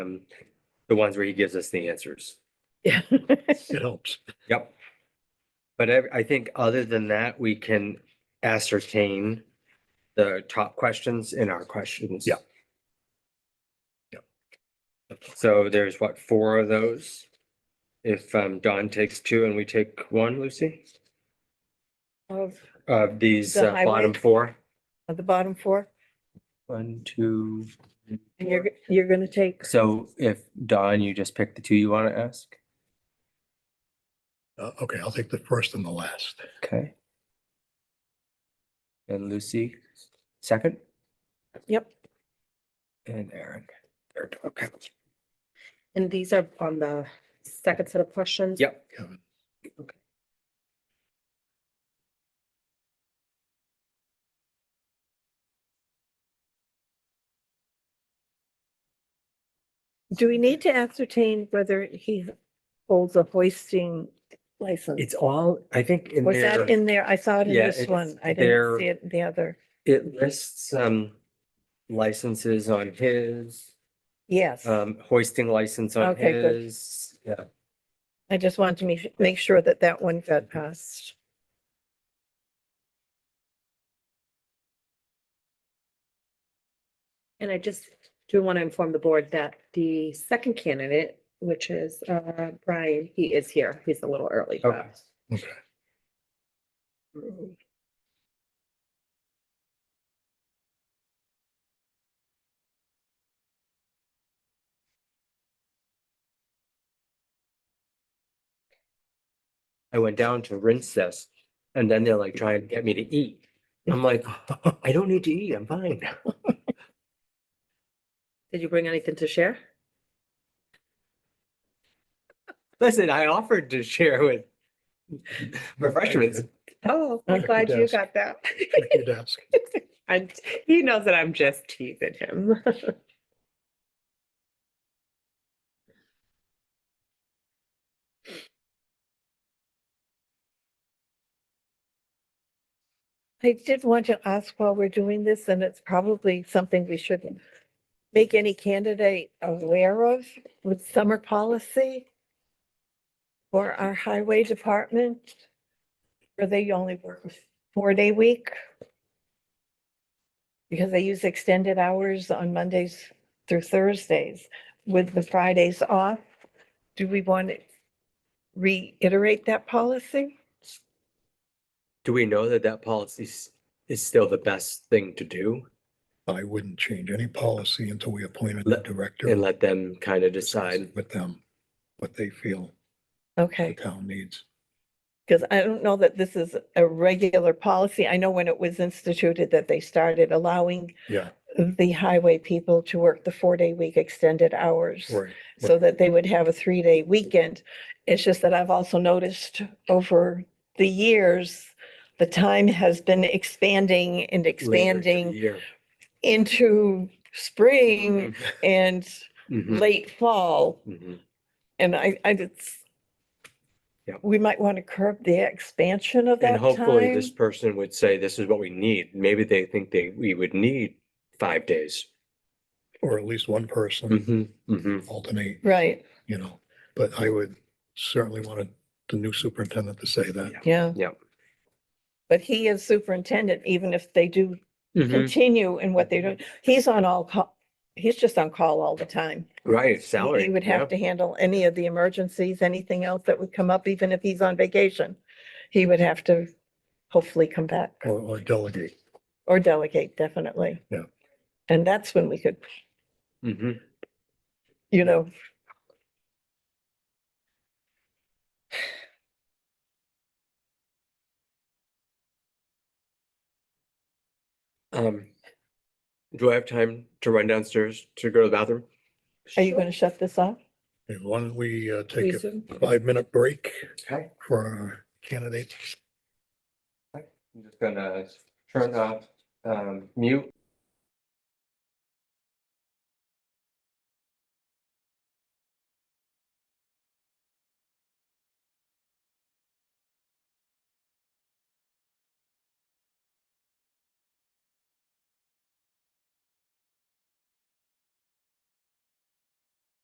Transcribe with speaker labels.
Speaker 1: um, the ones where he gives us the answers.
Speaker 2: Yeah.
Speaker 3: It helps.
Speaker 1: Yep. But I, I think other than that, we can ascertain the top questions in our questions.
Speaker 3: Yeah.
Speaker 1: So there's what, four of those? If um, Don takes two and we take one, Lucy,
Speaker 2: Of
Speaker 1: of these
Speaker 2: The
Speaker 1: uh, bottom
Speaker 2: highway.
Speaker 1: four?
Speaker 2: of the bottom four,
Speaker 1: One, two.
Speaker 2: and you're, g- you're gonna take,
Speaker 1: So if Don, you just pick the two you want to ask?
Speaker 3: Uh, okay, I'll take the first and the last.
Speaker 1: Okay. And Lucy, second?
Speaker 2: yep,
Speaker 1: And Aaron, third, okay.
Speaker 2: and these are on the second set of questions.
Speaker 1: Yep.
Speaker 3: Kevin.
Speaker 2: Do we need to ascertain whether he holds a hoisting license?
Speaker 1: It's all, I think in
Speaker 2: Was
Speaker 1: there,
Speaker 2: that in there? I saw it in
Speaker 1: Yeah,
Speaker 2: this
Speaker 1: it's
Speaker 2: one. I
Speaker 1: there.
Speaker 2: didn't see it in the other.
Speaker 1: it lists, um, licenses on his,
Speaker 2: Yes,
Speaker 1: um, hoisting license on
Speaker 2: Okay, good.
Speaker 1: his. Yeah,
Speaker 2: I just wanted to make, make sure that that one got passed.
Speaker 4: And I just do want to inform the board that the second candidate, which is uh, Brian, he is here. He's a little early. but-
Speaker 1: Okay.
Speaker 3: Okay.
Speaker 1: I went down to rinse this and then they're like trying to get me to eat. I'm like, I don't need to eat, I'm fine.
Speaker 4: Did you bring anything to share?
Speaker 1: Listen, I offered to share with refreshments.
Speaker 4: Oh,
Speaker 3: I'm glad you Yes.
Speaker 4: got that.
Speaker 3: Check your desk.
Speaker 4: And he knows that I'm just teasing him.
Speaker 2: I did want to ask while we're doing this, and it's probably something we should make any candidate aware of with summer policy for our highway department, where they only work a four-day week. Because they use extended hours on Mondays through Thursdays with the Fridays off. Do we want to reiterate that policy?
Speaker 1: Do we know that that policy s- is still the best thing to do
Speaker 3: I wouldn't change any policy until we appointed the
Speaker 1: Let-
Speaker 3: director.
Speaker 1: and let them kind of decide?
Speaker 3: With them, what they feel the
Speaker 2: Okay.
Speaker 3: town needs.
Speaker 2: Because I don't know that this is a regular policy. I know when it was instituted that they started allowing
Speaker 3: Yeah,
Speaker 2: the highway people to work the four-day week extended hours
Speaker 3: right.
Speaker 2: so that they would have a three-day weekend. It's just that I've also noticed over the years, the time has been expanding and
Speaker 1: later in the
Speaker 2: expanding
Speaker 1: year.
Speaker 2: into spring
Speaker 1: Mm-hmm.
Speaker 2: and
Speaker 1: Mhm,
Speaker 2: late fall.
Speaker 1: mhm.
Speaker 2: And I, I, it's,
Speaker 1: Yep.
Speaker 2: we might want to curb the expansion of
Speaker 1: And
Speaker 2: that
Speaker 1: hopefully
Speaker 2: time.
Speaker 1: this person would say, this is what we need. Maybe they think they, we would need five days.
Speaker 3: Or at least one person
Speaker 1: Mhm,
Speaker 3: Mm-hmm.
Speaker 1: mhm.
Speaker 3: alternate,
Speaker 2: Right,
Speaker 3: you know, but I would certainly want the new superintendent to say that.
Speaker 2: yeah.
Speaker 1: Yep.
Speaker 2: But he is superintendent, even if they do Mm-hmm.
Speaker 1: Mm-hmm.
Speaker 2: continue in what they're doing. He's on all call, he's just on call all the time.
Speaker 1: Right,
Speaker 2: He-
Speaker 1: salary.
Speaker 2: He would have to handle any of the emergencies, anything else that would come up, even if he's on vacation. He would have to hopefully come back
Speaker 3: Or, or delegate.
Speaker 2: or delegate, definitely.
Speaker 3: Yeah.
Speaker 2: And that's when we could,
Speaker 1: yeah. Mhm.
Speaker 2: you know,
Speaker 1: Um, do I have time to run downstairs to go to the bathroom?
Speaker 2: are you going to shut this off?
Speaker 3: Okay, Why don't we uh, take a
Speaker 4: Lisa?
Speaker 3: five-minute break
Speaker 1: Okay.
Speaker 3: for our candidates?
Speaker 1: I'm just gonna turn off, um, mute